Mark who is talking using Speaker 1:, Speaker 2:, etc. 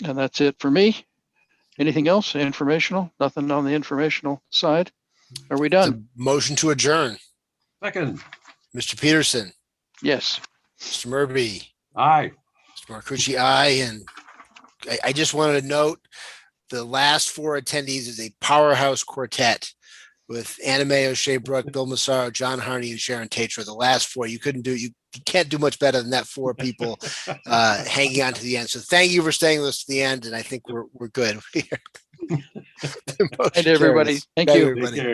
Speaker 1: And that's it for me. Anything else informational? Nothing on the informational side? Are we
Speaker 2: It's a
Speaker 1: done?
Speaker 2: Motion to adjourn.
Speaker 3: Second,
Speaker 2: Mr. Peterson,
Speaker 1: Yes.
Speaker 2: Mr. Murphy,
Speaker 3: aye.
Speaker 2: Mr. Marcucci, aye. And I, I just wanted to note, the last four attendees is a powerhouse quartet with Anime O'Shea Brook, Bill Massaro, John Harney, and Sharon Tatro. The last four, you couldn't do, you you can't do much better than that four people uh, hanging on to the end. So thank you for staying with us to the end, and I think we're, we're good. The motion
Speaker 1: And everybody,
Speaker 2: carries.
Speaker 1: thank
Speaker 2: Night,
Speaker 1: you.
Speaker 3: Take
Speaker 2: everybody.
Speaker 3: care.